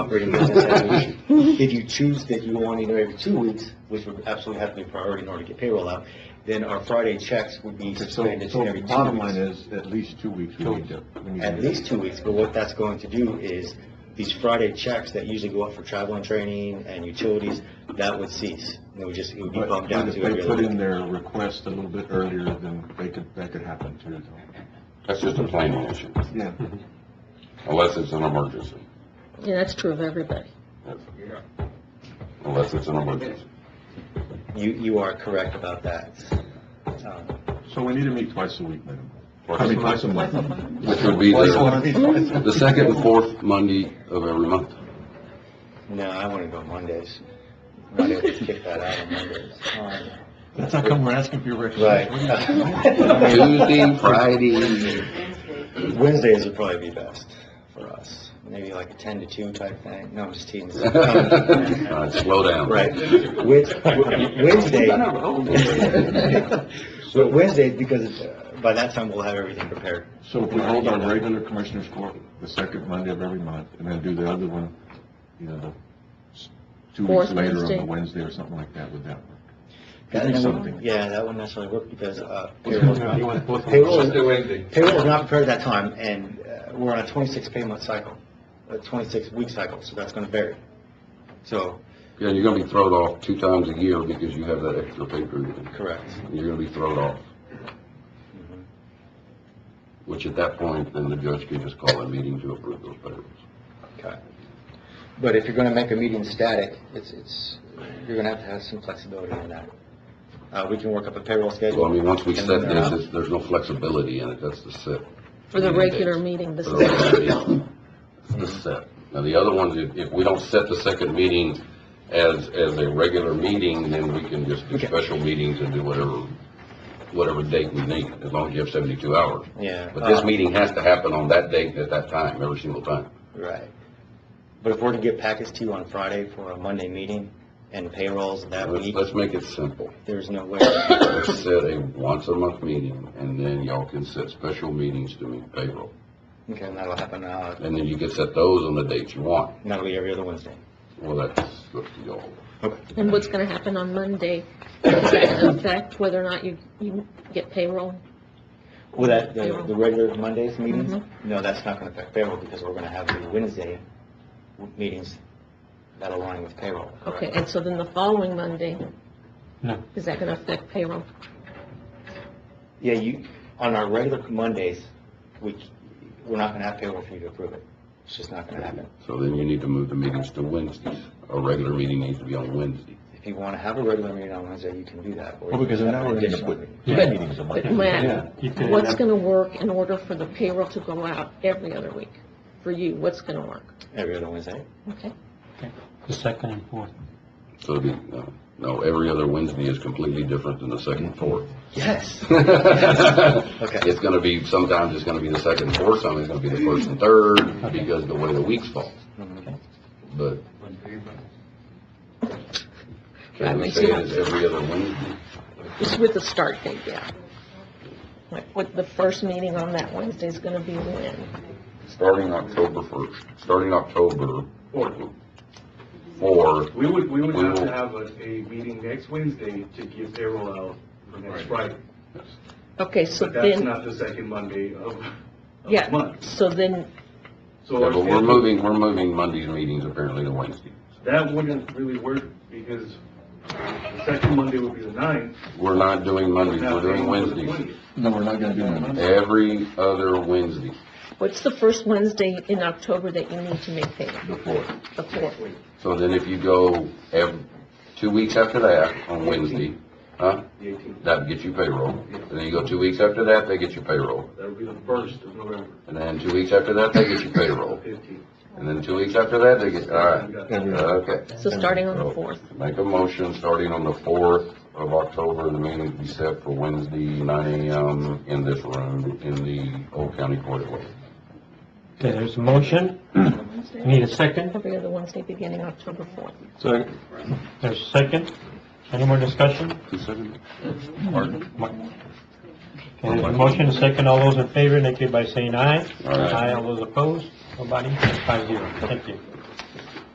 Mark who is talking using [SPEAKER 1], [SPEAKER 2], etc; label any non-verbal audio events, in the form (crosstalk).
[SPEAKER 1] (laughs)
[SPEAKER 2] operating as an evaluation. If you choose that you want to know every two weeks, which would absolutely have to be a priority in order to get payroll out, then our Friday checks would be
[SPEAKER 1] So,
[SPEAKER 2] suspended
[SPEAKER 1] so
[SPEAKER 2] every two
[SPEAKER 1] bottom line
[SPEAKER 2] weeks.
[SPEAKER 1] is, at least two weeks we
[SPEAKER 3] Two
[SPEAKER 1] need to. we need to-
[SPEAKER 2] At least two weeks, but what that's going to do is, these Friday checks that usually go up for travel and training and utilities, that would cease. It would just, it would be
[SPEAKER 1] But
[SPEAKER 2] bumped
[SPEAKER 1] but
[SPEAKER 2] down
[SPEAKER 1] if
[SPEAKER 2] to every
[SPEAKER 1] they
[SPEAKER 2] other
[SPEAKER 1] put in
[SPEAKER 2] week.
[SPEAKER 1] their request a little bit earlier, then they could, that could happen too, though.
[SPEAKER 4] That's just a planning issue,
[SPEAKER 1] Yeah.
[SPEAKER 4] unless it's an emergency.
[SPEAKER 5] Yeah, that's true of everybody.
[SPEAKER 4] That's- Unless it's an emergency.
[SPEAKER 2] You, you are correct about that. Um,
[SPEAKER 1] So we need to meet twice a week minimum. I mean,
[SPEAKER 4] Which
[SPEAKER 1] twice a month.
[SPEAKER 4] would be
[SPEAKER 1] Twice a
[SPEAKER 4] the,
[SPEAKER 1] month,
[SPEAKER 2] (laughs)
[SPEAKER 1] twice a month.
[SPEAKER 4] the second and fourth Monday of every month.
[SPEAKER 2] No, I want to go Mondays. Might have to kick that out on Mondays.
[SPEAKER 1] (laughs) That's how come we're asking for
[SPEAKER 2] (laughs)
[SPEAKER 1] your
[SPEAKER 2] Right.
[SPEAKER 1] recommendation.
[SPEAKER 4] Tuesday, Friday,
[SPEAKER 2] Wednesdays would probably be best for us. Maybe like a 10 to 2 type thing. No, I'm just teasing. Right.
[SPEAKER 4] Uh, slow down.
[SPEAKER 2] Wed- Wednesday, (laughs) But Wednesdays, because uh, by that time we'll have everything prepared.
[SPEAKER 1] So if we hold our regular commissioners court the second Monday of every month, and then do the other one, you know, s- two weeks
[SPEAKER 5] Fourth
[SPEAKER 1] later on
[SPEAKER 5] Wednesday.
[SPEAKER 1] the Wednesday or something like that, would that work?
[SPEAKER 2] That-
[SPEAKER 1] Give me
[SPEAKER 2] that wouldn't-
[SPEAKER 1] something.
[SPEAKER 2] Yeah, that wouldn't necessarily work because uh, payroll's not, payroll is- payroll is not prepared at that time, and uh, we're on a 26 payment cycle, a 26-week cycle, so that's going to vary. So,
[SPEAKER 4] Yeah, you're gonna be thrown off two times a year because you have that extra pay period.
[SPEAKER 2] correct. Mm-hmm.
[SPEAKER 4] You're gonna be thrown off. Which at that point, then the judge can just call a meeting to approve those payrolls.
[SPEAKER 2] Okay. But if you're going to make a meeting static, it's, it's, you're going to have to have some flexibility in that. Uh, we can work up a payroll
[SPEAKER 4] So I
[SPEAKER 2] schedule.
[SPEAKER 4] mean, once we
[SPEAKER 2] and then
[SPEAKER 4] set this,
[SPEAKER 2] they're out.
[SPEAKER 4] it's- there's no flexibility in it, that's the set.
[SPEAKER 5] For the
[SPEAKER 6] Mm-hmm.
[SPEAKER 4] Meeting
[SPEAKER 5] regular
[SPEAKER 4] dates.
[SPEAKER 5] meeting, this
[SPEAKER 4] For
[SPEAKER 5] is.
[SPEAKER 4] the regular meeting. It's the set. Now, the other ones, if, if we don't set the second meeting as, as a regular meeting, then we can just do
[SPEAKER 2] Okay.
[SPEAKER 4] special meetings and do whatever, whatever date we need, as long as you have seventy-two hours.
[SPEAKER 2] Yeah.
[SPEAKER 4] But this
[SPEAKER 2] uh,
[SPEAKER 4] meeting has to happen on that date at that time, every single time.
[SPEAKER 2] Right. But if we're to get packets to you on Friday for a Monday meeting and payrolls that
[SPEAKER 4] Let's,
[SPEAKER 2] week,
[SPEAKER 4] let's make it simple.
[SPEAKER 2] there's no way.
[SPEAKER 4] Let's set a once-a-month meeting, and then y'all can set special meetings to meet payroll.
[SPEAKER 2] Okay, and that'll happen, uh,
[SPEAKER 4] And then you can set those on the dates you want.
[SPEAKER 2] that'll be every other Wednesday.
[SPEAKER 4] Well, that's up to y'all.
[SPEAKER 5] And what's gonna happen on Monday, does that affect whether or not you, you get payroll?
[SPEAKER 2] Well, that, the, the regular Mondays meetings?
[SPEAKER 5] Mhm.
[SPEAKER 2] No, that's not gonna affect payroll because we're gonna have the Wednesday w- meetings that align with payroll. correct?
[SPEAKER 5] Okay, and so then the following Monday?
[SPEAKER 3] No.
[SPEAKER 5] Is that gonna affect payroll?
[SPEAKER 2] Yeah, you, on our regular Mondays, we, c- we're not gonna have payroll for you to approve it. It's just not gonna happen.
[SPEAKER 4] So then you need to move the meetings to Wednesdays. A regular meeting needs to be on Wednesday.
[SPEAKER 2] If you wanna have a regular meeting on Wednesday, you can do that. or
[SPEAKER 1] Well,
[SPEAKER 2] you
[SPEAKER 1] because
[SPEAKER 2] can
[SPEAKER 1] then
[SPEAKER 2] have
[SPEAKER 1] now
[SPEAKER 2] an
[SPEAKER 1] we're going to
[SPEAKER 2] additional
[SPEAKER 1] put
[SPEAKER 2] meeting.
[SPEAKER 1] two meetings a month.
[SPEAKER 5] But Matt,
[SPEAKER 3] You could-
[SPEAKER 5] what's gonna work in order for the payroll to go out every other week? For you, what's gonna work?
[SPEAKER 2] Every other Wednesday?
[SPEAKER 5] Okay?
[SPEAKER 3] The second and fourth.
[SPEAKER 4] So it'd be, no, no, every other Wednesday is completely different than the second and fourth. (laughs)
[SPEAKER 2] (laughs) Yes.
[SPEAKER 4] It's gonna be, sometimes it's gonna be the second and fourth, sometimes it's gonna be the first and third, because the way the weeks fall.
[SPEAKER 2] Mm-hmm.
[SPEAKER 4] But. Can we say it's every other Wednesday?
[SPEAKER 5] Just with the start date, yeah. Like, what, the first meeting on that Wednesday is gonna be when?
[SPEAKER 4] Starting October first, starting October four,
[SPEAKER 6] We would, we would
[SPEAKER 4] We
[SPEAKER 6] have
[SPEAKER 4] will-
[SPEAKER 6] to have a, a meeting next Wednesday to give payroll out for next Friday.
[SPEAKER 5] Okay, so
[SPEAKER 6] But that's
[SPEAKER 5] then,
[SPEAKER 6] not the second Monday of, of the
[SPEAKER 5] yeah,
[SPEAKER 6] month.
[SPEAKER 5] so then
[SPEAKER 6] So
[SPEAKER 4] Yeah,
[SPEAKER 6] our
[SPEAKER 4] but we're
[SPEAKER 6] schedule,
[SPEAKER 4] moving, we're moving Monday's meetings apparently to Wednesday.
[SPEAKER 6] that wouldn't really work because the second Monday would be the ninth.
[SPEAKER 4] We're not doing Mondays,
[SPEAKER 6] now
[SPEAKER 4] we're doing
[SPEAKER 6] payroll is the
[SPEAKER 4] Wednesdays.
[SPEAKER 6] 20th.
[SPEAKER 1] No, we're not going to do that.
[SPEAKER 4] Every other Wednesday.
[SPEAKER 5] What's the first Wednesday in October that you need to make payment?
[SPEAKER 4] The fourth.
[SPEAKER 5] The fourth.
[SPEAKER 4] So then if you go ev two weeks after that, on Wednesday, huh?
[SPEAKER 6] The eighteenth,
[SPEAKER 4] That gets you payroll. And then you go two weeks after that, they get you payroll.
[SPEAKER 6] that would be the first of November,
[SPEAKER 4] And then two weeks after that, they get you
[SPEAKER 6] the
[SPEAKER 4] payroll.
[SPEAKER 6] fifteenth.
[SPEAKER 4] And then two weeks after that, they get, all right,
[SPEAKER 1] Every-
[SPEAKER 4] okay.
[SPEAKER 5] So starting on the fourth.
[SPEAKER 4] Make a motion, starting on the fourth of October, the meeting be set for Wednesday, nine AM, in this room, in the Old County Courthouse.
[SPEAKER 3] Okay, there's a motion. We Need a second.
[SPEAKER 5] Every other Wednesday beginning October fourth.
[SPEAKER 3] There's a second. Any more discussion?
[SPEAKER 4] Consider-
[SPEAKER 3] Okay, there's a motion, a second. All those in favor, indicate by saying aye.
[SPEAKER 4] Aye.
[SPEAKER 3] all those opposed. Nobody. Five zero. Thank you.